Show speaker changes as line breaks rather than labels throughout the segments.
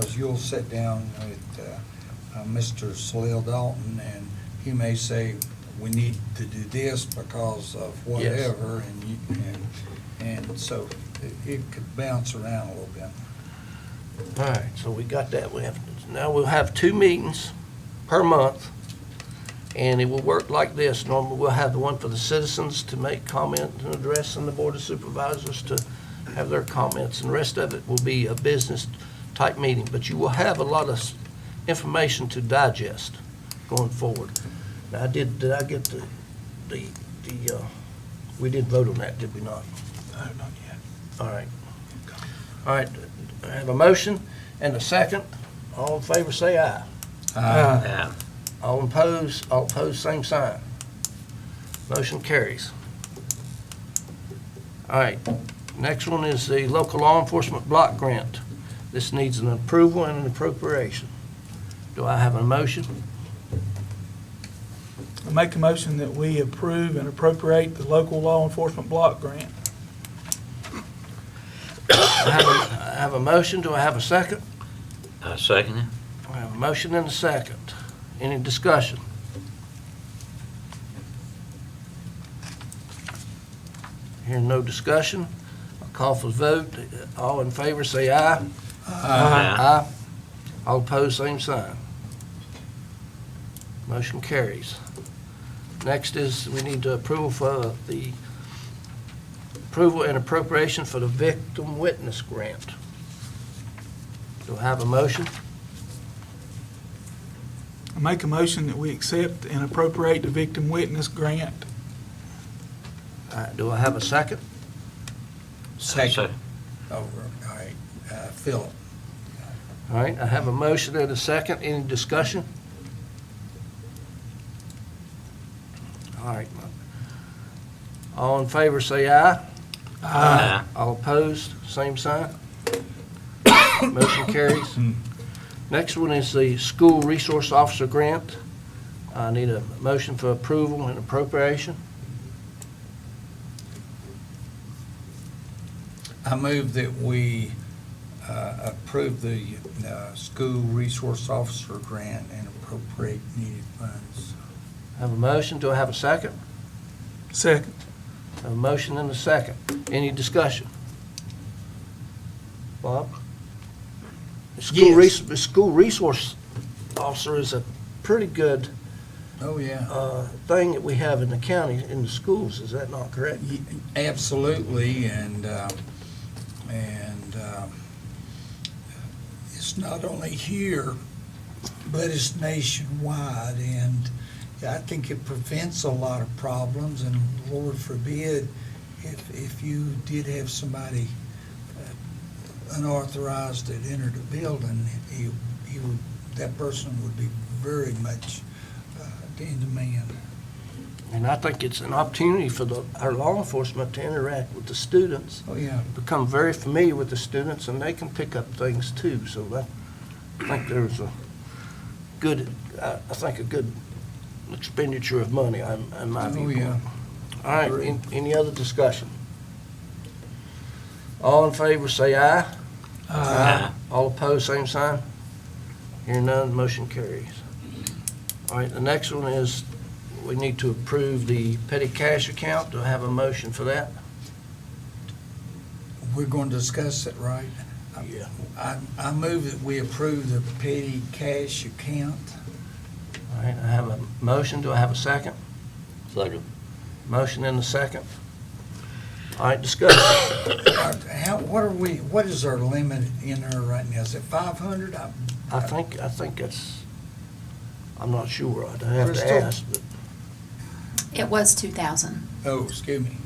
Because you'll sit down with uh, uh, Mr. Salil Dalton, and he may say, we need to do this because of whatever, and you, and, and so it- it could bounce around a little bit.
All right, so we got that. We have, now we'll have two meetings per month, and it will work like this. Normally, we'll have the one for the citizens to make comment and address, and the Board of Supervisors to have their comments, and the rest of it will be a business-type meeting. But you will have a lot of s- information to digest going forward. Now, I did, did I get the, the, the, uh, we did vote on that, did we not? No, not yet. All right. All right, I have a motion and a second. All in favor, say aye.
Uh,
Yeah.
All opposed, all opposed, same sign. Motion carries. All right, next one is the local law enforcement block grant. This needs an approval and an appropriation. Do I have a motion?
I make a motion that we approve and appropriate the local law enforcement block grant.
I have a- I have a motion, do I have a second?
I Uh, second it.
I have a motion and a second. Any discussion? Hearing no discussion, I'll call for the vote. All in favor, say aye. Aye. All opposed, same sign. Motion carries. Next is, we need to approve for the approval and appropriation for the victim witness grant. Do I have a motion?
I make a motion that we accept and appropriate the victim witness grant.
All right, do I have a second?
Second.
Over, all right, uh, Philip.
All right, I have a motion and a second. Any discussion? All right. All in favor, say aye.
Aye.
All opposed, same sign. Motion carries. Next one is the school resource officer grant. I need a motion for approval and appropriation.
I move that we uh, approve the uh, school resource officer grant and appropriate needed funds.
I Have a motion, do I have a second?
Second.
I have A motion and a second. Any discussion? Bob? The School
Yes.
res, the school resource officer is a pretty good,
Oh, yeah.
uh, thing that we have in the county, in the schools, is that not correct?
Ye- Absolutely, and, uh, and uh, it's not only here, but it's nationwide, and I think it prevents a lot of problems, and Lord forbid, if, if you did have somebody uh, unauthorized that entered a building, he, he would, that person would be very much uh, in demand.
And I think it's an opportunity for the, our law enforcement to interact with the students,
Oh, yeah.
become very familiar with the students, and they can pick up things too, so that, I think there's a good, I, I think a good expenditure of money, in, in my
Oh,
viewpoint.
yeah.
All right, an- any other discussion? All in favor, say aye.
Aye.
All opposed, same sign. Hearing none, motion carries. All right, the next one is, we need to approve the petty cash account. Do I have a motion for that?
We're going to discuss it, right?
Yeah.
I, I move that we approve the petty cash account.
All right, I have a motion. Do I have a second?
Second.
Motion and a second. All right, discussion.
Our- Uh, How, what are we, what is our limit in there right now? Is it five hundred?
I think, I think that's, I'm not sure. I'd have to
Crystal?
ask, but
It was 2,000.
Oh, excuse me.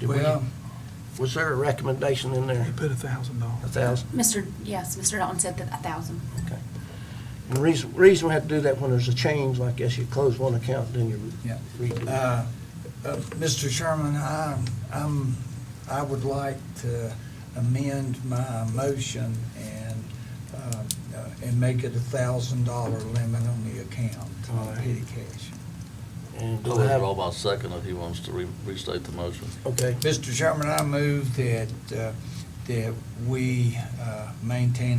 did we-
Well,
was there a recommendation in there?
They put a thousand
A
dollars.
thousand?
Mr., yes, Mr. Dalton said that 1,000.
And the reason, reason we have to do that when there's a change like this, you close one account, then you
Yeah.
redo.
uh,
it.
uh, Mr. Sherman, I, I'm, I would like to amend my motion and, uh, uh, and make it a thousand dollar limit on the account,
All
on
right.
petty cash.
And
Go
we'll
ahead,
have,
Rob, I'll second if he wants to re- restate the motion.
okay,
Mr. Chairman, I move that uh, that we uh, maintain